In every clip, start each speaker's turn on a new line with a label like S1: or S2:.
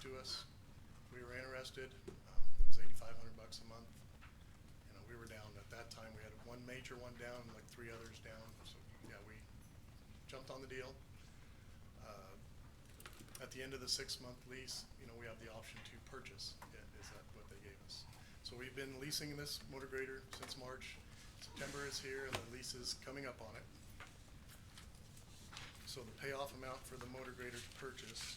S1: to us. We were interested. Um, It was eighty-five hundred bucks a month. You know, we were down, at that time, we had one major one down, and like three others down, so, yeah, we jumped on the deal. Uh, At the end of the six-month lease, you know, we have the option to purchase, i- is that what they gave us. So we've been leasing this motor grader since March. September is here, and the lease is coming up on it. So the payoff amount for the motor grader to purchase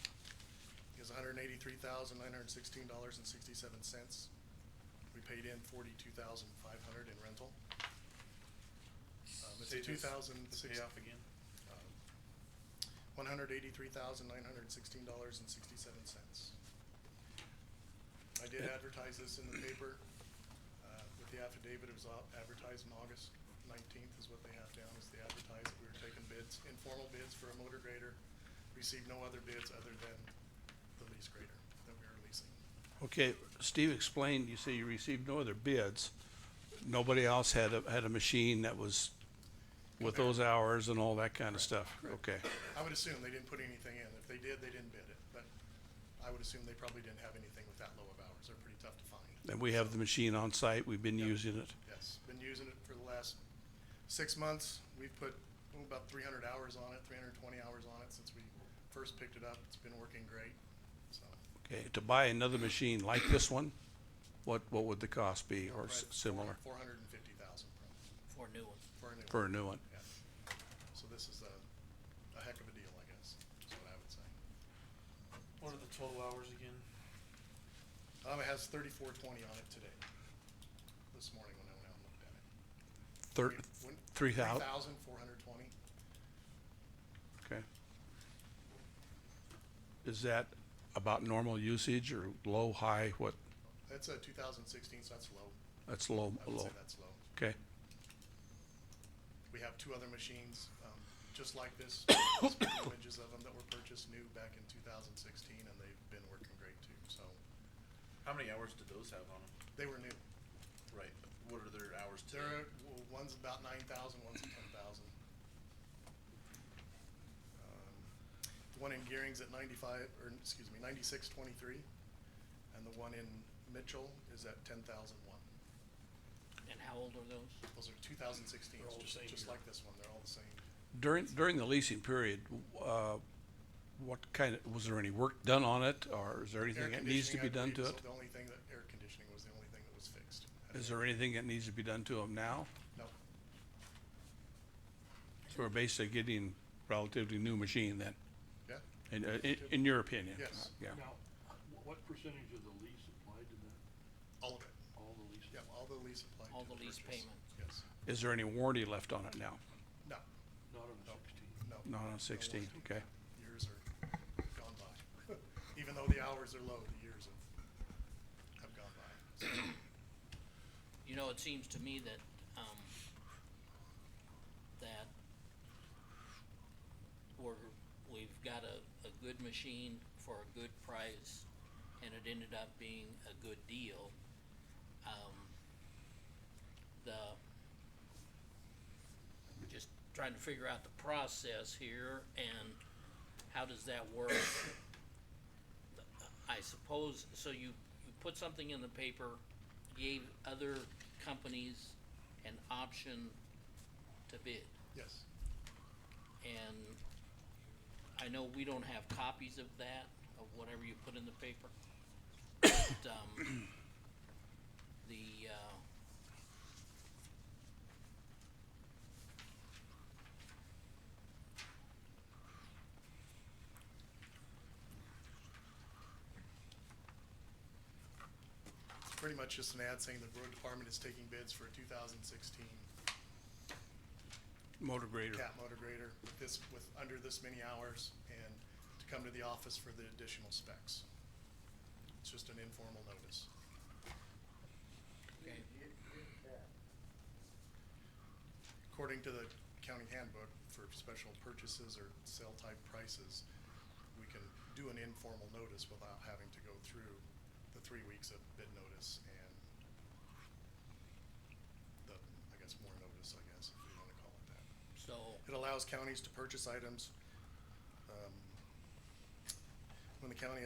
S1: is hundred and eighty-three thousand, nine hundred and sixteen dollars and sixty-seven cents. We paid in forty-two thousand, five hundred in rental. Um, it's
S2: Say
S1: a
S2: this-
S1: 2006
S2: The payoff again?
S1: Um, One hundred eighty-three thousand, nine hundred and sixteen dollars and sixty-seven cents. I did advertise this in the paper, uh, with the affidavit, it was au- advertised in August nineteenth is what they have down, is the advertised, we were taking bids, informal bids for a motor grader. Received no other bids other than the lease grader that we were leasing.
S3: Okay, Steve explained, you say you received no other bids. Nobody else had a, had a machine that was with those hours and all that kind of stuff. Okay,
S1: I would assume they didn't put anything in, if they did, they didn't bid it, but I would assume they probably didn't have anything with that low of hours, they're pretty tough to find.
S3: and we have the machine on site, we've been using it.
S1: Yes, been using it for the last six months. We've put oh, about three hundred hours on it, three hundred and twenty hours on it since we first picked it up. It's been working great, so.
S3: Okay, to buy another machine like this one, what, what would the cost be or s- similar
S1: Four hundred and fifty thousand
S4: Four new ones.
S1: for a new
S3: for a
S1: one.
S3: new one?
S1: Yeah. So this is a, a heck of a deal, I guess, is what I would say.
S2: What are the total hours again?
S1: Um, it has thirty-four twenty on it today, this morning when I went out and looked at it.
S3: Thir- three thou-
S1: thousand four hundred twenty.
S3: okay. Is that about normal usage or low, high, what,
S1: That's a two thousand sixteen, so that's low.
S3: that's low,
S1: I would
S3: low,
S1: say that's low.
S3: okay?
S1: We have two other machines, um, just like this, speaking of images of them that were purchased new back in two thousand sixteen, and they've been working great too, so,
S2: How many hours did those have on them?
S1: they were new.
S2: Right, what are their hours
S1: There
S2: today?
S1: are, well, one's about nine thousand, one's ten thousand. The one in Gearing's at ninety-five, or, excuse me, ninety-six twenty-three, and the one in Mitchell is at ten thousand one.
S4: And how old are those?
S1: Those are two thousand sixteen,
S2: They're all the
S1: just,
S2: same
S1: just
S2: year.
S1: like this one, they're all the same.
S3: During, during the leasing period, uh, what kind of, was there any work done on it, or is there anything
S1: Air
S3: that needs to be
S1: conditioning, I
S3: done to
S1: believe,
S3: it?
S1: is The only thing that, air conditioning was the only thing that was fixed.
S3: Is there anything that needs to be done to them now?
S1: No,
S3: So we're basically getting relatively new machine then,
S1: yeah.
S3: in, uh, in, in your opinion?
S1: Yes.
S3: Yeah,
S5: Now, wh- what percentage of the lease applied to that,
S1: All of it.
S5: all the lease?
S1: Yeah, all the lease applied
S4: All
S1: to
S4: the lease
S1: purchase.
S4: payment.
S1: Yes.
S3: is there any warranty left on it now?
S1: No,
S5: Not
S1: no.
S3: Not
S5: on the sixteen?
S3: on sixteen,
S1: warranty.
S3: okay,
S1: Years are gone by. Even though the hours are low, the years have, have gone by. So,
S4: You know, it seems to me that, um, that we're, we've got a, a good machine for a good price, and it ended up being a good deal. Um, the, just trying to figure out the process here and how does that work? I suppose, so you, you put something in the paper, gave other companies an option to bid.
S1: Yes,
S4: And I know we don't have copies of that, of whatever you put in the paper. But, um, the, uh,
S1: it's pretty much just an ad saying the road department is taking bids for a two thousand sixteen
S3: motor grader,
S1: cat motor grader with this, with under this many hours and to come to the office for the additional specs. It's just an informal notice.
S4: okay,
S1: According to the county handbook for special purchases or sale type prices, we can do an informal notice without having to go through the three weeks of bid notice and the, I guess, more notice, I guess, if you wanna call it that.
S4: so,
S1: It allows counties to purchase items, um, when the county